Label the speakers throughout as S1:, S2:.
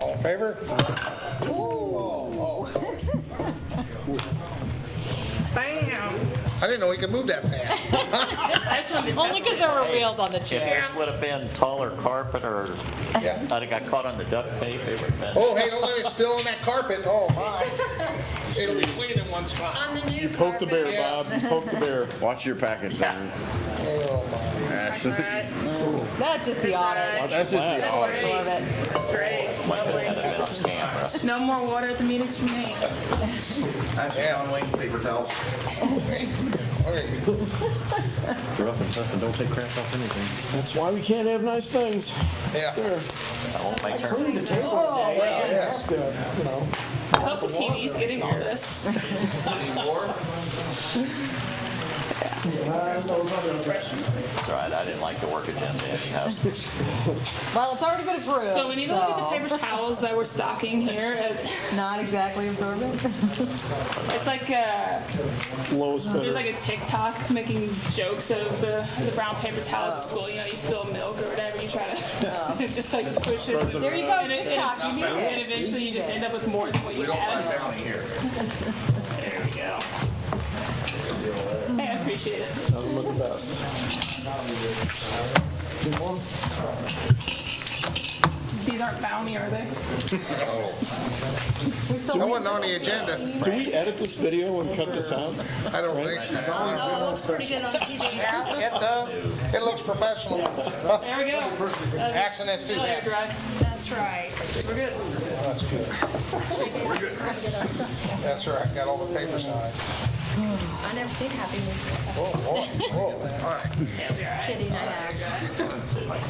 S1: All in favor?
S2: Bam!
S1: I didn't know he could move that fast.
S3: Only because there were wheels on the
S4: If
S3: chair.
S4: this would have been taller carpet or,
S1: Yeah.
S4: I'd have got caught on the duct tape, it would have been.
S1: Oh, hey, don't let it spill on that carpet. Oh, my. It'll be clean in one spot.
S5: On the new
S6: You poked the bear,
S5: carpet.
S6: Bob, you poked the bear.
S7: Watch your package, Larry.
S1: Oh, my.
S2: That's
S7: Ashton.
S2: right.
S3: That'd just be on it.
S2: That's
S7: That's just the
S2: That's
S7: audit.
S3: Absorb
S2: great.
S3: it.
S2: That's great.
S4: Might have
S2: Lovely.
S4: had a bit of scam.
S2: No more water at the meetings for me.
S1: Okay.
S7: Rough and tough and don't take crap off anything.
S6: That's why we can't have nice things.
S1: Yeah. Oh,
S6: There.
S4: I won't make her-
S6: That's good, you know.
S2: I hope the TV's getting all this.
S4: It's all right, I didn't like the work agenda anyhow.
S3: Well, it's already been approved.
S2: So we need to look at the
S3: so
S2: paper towels that we're stocking here.
S3: Not exactly absorbent.
S2: It's like, uh,
S6: Lowest
S2: There's
S6: bidder.
S2: like a TikTok making jokes of the, the brown paper towels at school. You know, you spill milk or whatever, you try to just like push it.
S3: There you go,
S2: And, it- and,
S3: TikTok, you need
S2: and
S3: it.
S2: eventually you just end up with more than what you had. There we go. Hey, I appreciate it.
S6: Doesn't look the best.
S2: These aren't bounty, are they?
S3: We still
S1: That wasn't on the agenda.
S6: Do we edit this video and cut this out?
S1: I don't think so. No.
S5: Oh, it looks pretty good on TV.
S1: It does. It looks professional.
S2: There we go.
S1: Accidents do
S2: Oh, you're
S1: that.
S2: dry.
S5: That's right.
S2: We're good.
S1: That's good. That's right. Got all the paper signed.
S5: I never seen Happy Weeks like that.
S1: Whoa, whoa, whoa. All right.
S5: Kitty night out.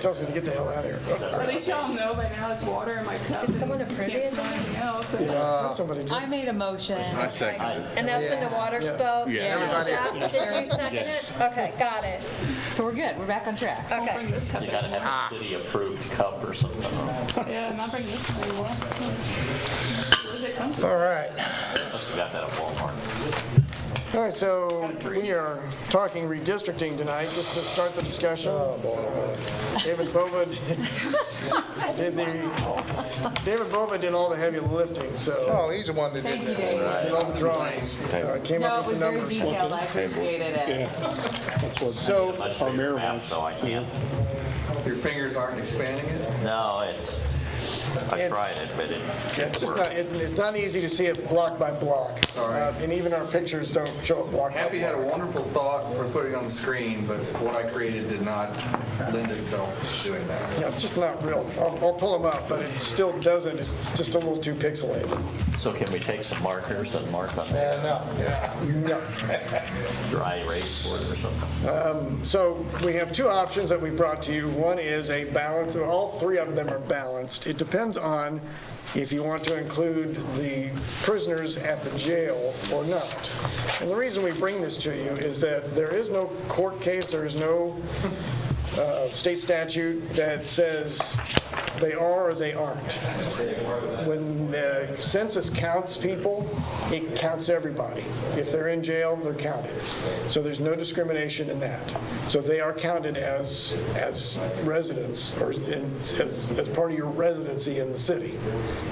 S1: Tells me to get the hell out of here.
S2: At least y'all know by now it's water in my cup.
S5: Did someone approve
S2: Can't
S5: it?
S2: smell anything else.
S3: I made a motion.
S7: I second it.
S5: And that's when the water spoke?
S7: Yeah.
S1: Everybody-
S5: Jack, Did you second it? Okay, got it.
S3: So we're good. We're back on track.
S2: Don't
S5: Okay.
S2: bring this cup
S4: You gotta
S2: in.
S4: have a city-approved cup or something.
S2: Yeah, not bringing this one anymore. Where's it come from?
S1: All right.
S4: Must've got that at Walmart.
S8: All right, so we are talking redistricting tonight, just to start the discussion.
S6: Oh,
S8: David Bova did the, David Bova did all the heavy lifting, so
S1: Oh, he's the one that did
S3: Thank you,
S1: that.
S3: Dave.
S8: did all the drawings, uh, came
S3: No,
S8: up
S3: it was
S8: with the
S3: very
S8: numbers.
S3: detailed. I appreciated it.
S6: Yeah. That's what
S8: So,
S4: Much
S6: our
S4: bigger
S6: mayor
S4: map,
S6: wants.
S4: So I can't,
S9: Your fingers aren't expanding it?
S4: no, it's, I
S8: It's-
S4: tried it, but it
S8: it's
S4: didn't
S8: just
S4: work.
S8: not, it- it's not easy to see it block by block.
S9: Sorry.
S8: Uh, And even our pictures don't show it block by
S9: Happy had a
S8: block.
S9: wonderful thought for putting it on the screen, but what I created did not lend itself to doing that.
S8: Yeah, it's just not real. I'll, I'll pull them up, but it still doesn't, it's just a little too pixelated.
S4: So can we take some markers and mark on that
S1: And, uh,
S8: No.
S4: dry erase board or something?
S8: So we have two options that we brought to you. One is a balance, all three of them are balanced. It depends on if you want to include the prisoners at the jail or not. And the reason we bring this to you is that there is no court case, there is no uh, state statute that says they are or they aren't. When the census counts people, it counts everybody. If they're in jail, they're counted. So there's no discrimination in that. So they are counted as, as residents or in- as, as part of your residency in the city,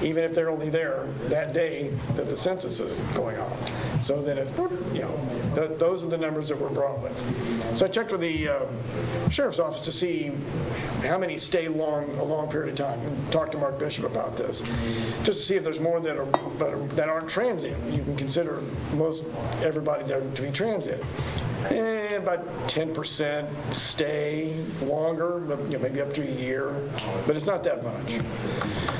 S8: even if they're only there that day that the census is going on. So then it, you know, th- those are the numbers that we're brought with. So I checked with the uh, sheriff's office to see how many stay long, a long period of time, and talked to Mark Bishop about this, just to see if there's more that are, that are- that aren't transient. You can consider most, everybody there to be transient. Eh, about 10% stay longer, but, you know, maybe up to a year, but it's not that much.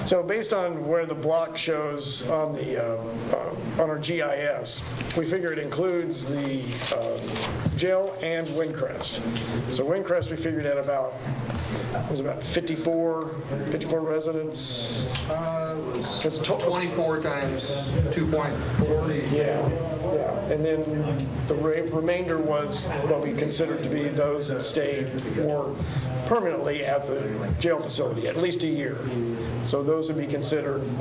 S8: So based on where the block shows on the, uh, uh, on our GIS, we figure it includes the um, jail and Windcrest. So Windcrest, we figured at about, it was about 54, 54 residents.
S9: Uh, it was
S8: It's to-
S9: 24 times 2.4.
S8: Yeah, yeah. And then the re- remainder was what we considered to be those that stayed more permanently at the jail facility, at least a year. So those would be considered